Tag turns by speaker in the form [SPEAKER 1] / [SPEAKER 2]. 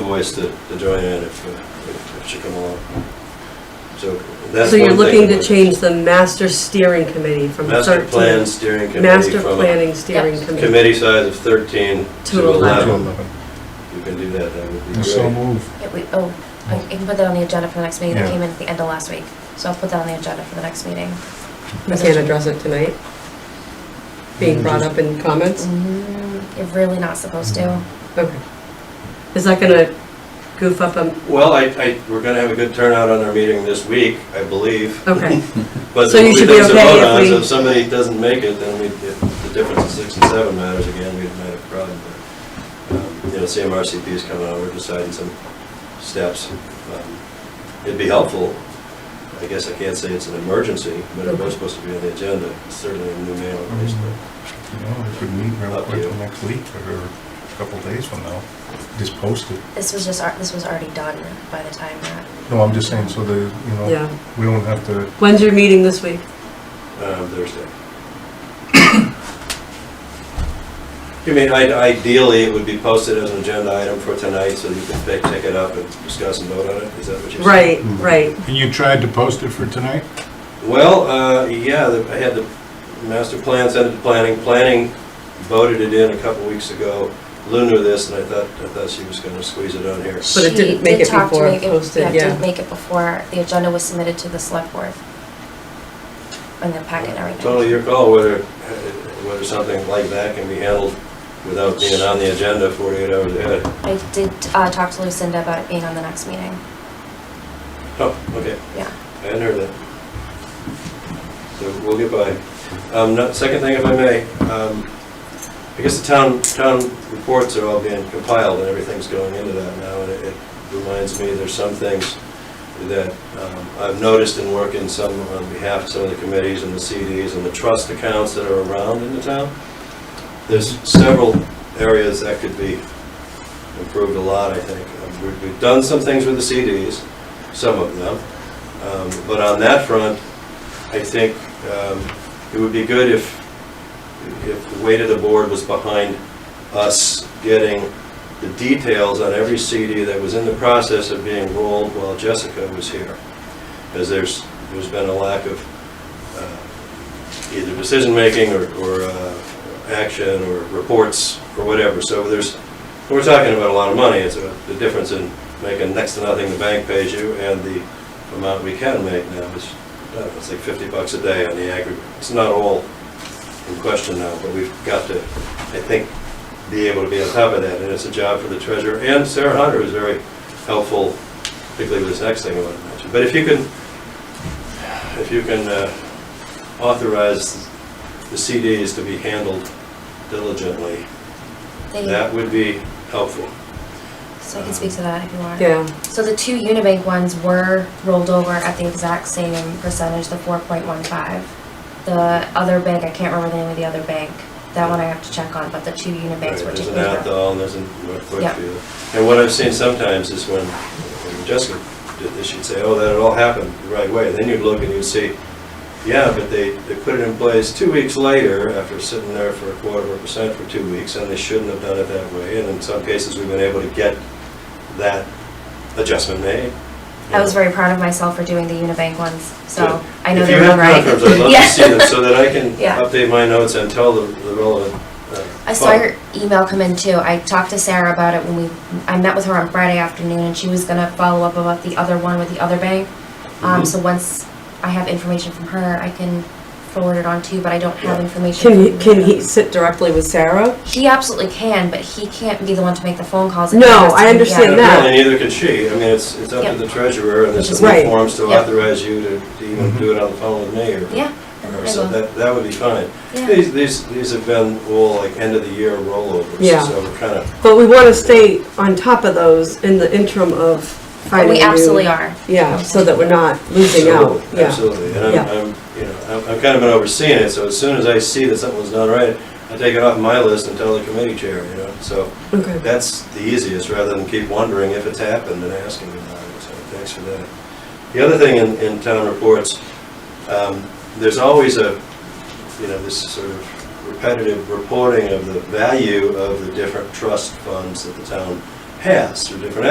[SPEAKER 1] voice to, to Joanne if, uh, if if she come along. So that's
[SPEAKER 2] So you're
[SPEAKER 1] one thing,
[SPEAKER 2] looking to
[SPEAKER 1] but
[SPEAKER 2] change the master steering committee from
[SPEAKER 1] Master
[SPEAKER 2] 13
[SPEAKER 1] plan steering committee
[SPEAKER 2] Master
[SPEAKER 1] from a
[SPEAKER 2] planning steering
[SPEAKER 3] Yeah.
[SPEAKER 2] committee.
[SPEAKER 1] committee size of thirteen
[SPEAKER 2] To
[SPEAKER 1] to eleven.
[SPEAKER 2] 11.
[SPEAKER 1] You can do that, that would be
[SPEAKER 4] And So
[SPEAKER 1] great.
[SPEAKER 4] move.
[SPEAKER 3] Yeah, we, oh, I I can put that on the agenda for the next meeting, that
[SPEAKER 4] Yeah.
[SPEAKER 3] came in at the end of last week, so I'll put that on the agenda for the next meeting.
[SPEAKER 2] We can't address it tonight? Being brought up in comments?
[SPEAKER 3] Mm, You're really not supposed to.
[SPEAKER 2] Okay. Is that gonna goof up, um,
[SPEAKER 1] Well, I, I, we're gonna have a good turnout on our meeting this week, I believe.
[SPEAKER 2] okay,
[SPEAKER 1] But
[SPEAKER 2] So
[SPEAKER 1] there
[SPEAKER 2] you
[SPEAKER 1] will be
[SPEAKER 2] should be
[SPEAKER 1] things to
[SPEAKER 2] okay
[SPEAKER 1] vote
[SPEAKER 2] if
[SPEAKER 1] on, so
[SPEAKER 2] we-
[SPEAKER 1] if somebody doesn't make it, then we, if the difference of six and seven matters again, we'd have a problem. But, um, You know, CMRCP is coming out, we're deciding some steps. Um, It'd be helpful, I guess I can't say it's an emergency, but it was supposed to be on the agenda, certainly a new name on this, but
[SPEAKER 4] You know, we could meet real
[SPEAKER 1] Up to
[SPEAKER 4] quick
[SPEAKER 1] you.
[SPEAKER 4] next week or a couple days from now. Just post it.
[SPEAKER 3] This was just, ar- this was already done by the time that,
[SPEAKER 4] No, I'm just saying so that, you
[SPEAKER 2] yeah.
[SPEAKER 4] know, we don't have to,
[SPEAKER 2] When's your meeting this week?
[SPEAKER 1] um, Thursday. I mean, i- ideally, it would be posted as an agenda item for tonight, so you can pick- take it up and discuss and vote on it, is that what you're saying?
[SPEAKER 2] Right,
[SPEAKER 4] Mm.
[SPEAKER 2] right.
[SPEAKER 5] And you tried to post it for tonight?
[SPEAKER 1] Well, uh, yeah, the- I had the master plan, sent it to planning, planning voted it in a couple weeks ago. Lou knew this, and I thought, I thought she was gonna squeeze it on here.
[SPEAKER 2] But it
[SPEAKER 3] She
[SPEAKER 2] didn't make
[SPEAKER 3] did
[SPEAKER 2] it
[SPEAKER 3] talk to
[SPEAKER 2] before
[SPEAKER 3] make it-
[SPEAKER 2] posted, yeah.
[SPEAKER 3] didn't make it before, the agenda was submitted to the select board. And the packet and everything.
[SPEAKER 1] Totally your call whether, whether something like that can be handled without being on the agenda 48 hours ahead.
[SPEAKER 3] I did, uh, talk to Lucinda about it being on the next meeting,
[SPEAKER 1] Oh, okay,
[SPEAKER 3] yeah.
[SPEAKER 1] I hadn't heard that. So we'll get by. Um, no- Second thing, if I may, um, I guess the town, town reports are all being compiled and everything's going into that now, and it it reminds me, there's some things that um, I've noticed in working some on behalf of some of the committees and the CDs and the trust accounts that are around in the town. There's several areas that could be improved a lot, I think. Um, we- We've done some things with the CDs, some of them, Um, but on that front, I think um, it would be good if, if the weight of the board was behind us getting the details on every CD that was in the process of being rolled while Jessica was here. As there's, there's been a lack of uh, either decision-making or, or uh, action or reports or whatever. So there's, we're talking about a lot of money. It's a- the difference in making next to nothing the bank pays you and the amount we can make now is, I don't know, it's like 50 bucks a day on the aggregate. It's not all in question now, but we've got to, I think, be able to be on top of that. And it's a job for the treasurer and Sarah Hunter is very helpful, particularly with this next thing I want to mention. But if you can, if you can uh, authorize the CDs to be handled diligently,
[SPEAKER 3] They-
[SPEAKER 1] that would be helpful.
[SPEAKER 3] So I can speak to that if you want.
[SPEAKER 2] Yeah,
[SPEAKER 3] So the two Unibank ones were rolled over at the exact same percentage, the four point one five. The other bank, I can't remember the name of the other bank, that one I have to check on, but the two Unibanks were
[SPEAKER 1] Right, There's
[SPEAKER 3] taken
[SPEAKER 1] an
[SPEAKER 3] over.
[SPEAKER 1] Athol, and there's a North
[SPEAKER 3] Yeah.
[SPEAKER 1] Brookfield. And what I've seen sometimes is when when Jessica did this, she'd say, oh, that all happened the right way. Then you'd look and you'd see, yeah, but they, they put it in place two weeks later after sitting there for a quarter of a percent for two weeks, and they shouldn't have done it that way. And in some cases, we've been able to get that adjustment made.
[SPEAKER 3] I was very proud of myself for doing the Unibank ones, so
[SPEAKER 1] Good.
[SPEAKER 3] I know
[SPEAKER 1] If
[SPEAKER 3] they're
[SPEAKER 1] you
[SPEAKER 3] right.
[SPEAKER 1] have confirms, I'd love to
[SPEAKER 3] Yeah.
[SPEAKER 1] see them so that I can
[SPEAKER 3] Yeah.
[SPEAKER 1] update my notes and tell the the relevant. uh,
[SPEAKER 3] I saw
[SPEAKER 1] folks.
[SPEAKER 3] your email come in too. I talked to Sarah about it when we, I met with her on Friday afternoon and she was gonna follow up about the other one with the other bank. Um,
[SPEAKER 1] Mhm.
[SPEAKER 3] so once I have information from her, I can forward it on to you, but I don't have
[SPEAKER 1] Yeah.
[SPEAKER 3] information.
[SPEAKER 2] can he,
[SPEAKER 3] from
[SPEAKER 2] can
[SPEAKER 3] you.
[SPEAKER 2] he sit directly with Sarah?
[SPEAKER 3] He absolutely can, but he can't be the one to make the phone calls.
[SPEAKER 2] No,
[SPEAKER 3] It has to
[SPEAKER 2] I
[SPEAKER 3] be-
[SPEAKER 2] understand
[SPEAKER 3] yeah.
[SPEAKER 2] that.
[SPEAKER 1] Well, neither can she. I mean, it's, it's up
[SPEAKER 3] Yep.
[SPEAKER 1] to the treasurer, and there's
[SPEAKER 3] Which is
[SPEAKER 1] some
[SPEAKER 2] right.
[SPEAKER 1] forms to
[SPEAKER 3] Yep.
[SPEAKER 1] authorize you to to even do it on the phone with me, or...
[SPEAKER 3] Yeah.
[SPEAKER 1] or-
[SPEAKER 3] I
[SPEAKER 1] So
[SPEAKER 3] will.
[SPEAKER 1] that, that would be fine.
[SPEAKER 3] Yeah.
[SPEAKER 1] These, these, these have been all like end-of-the-year rollovers.
[SPEAKER 2] Yeah.
[SPEAKER 1] So we're kind of,
[SPEAKER 2] But we wanna stay on top of those in the interim of
[SPEAKER 3] But
[SPEAKER 2] finding
[SPEAKER 3] we
[SPEAKER 2] new-
[SPEAKER 3] absolutely are.
[SPEAKER 2] Yeah, so that we're not losing out,
[SPEAKER 1] Absolutely,
[SPEAKER 2] yeah.
[SPEAKER 1] Absolutely, and
[SPEAKER 2] Yeah.
[SPEAKER 1] I'm, I'm, you know, I'm- I've kind of been overseeing it, so as soon as I see that something's not right, I take it off my list and tell the committee chair, you know, so
[SPEAKER 2] Okay.
[SPEAKER 1] that's the easiest, rather than keep wondering if it's happened and asking about it, so thanks for that. The other thing in, in town reports, um, there's always a, you know, this sort of repetitive reporting of the value of the different trust funds that the town has, through different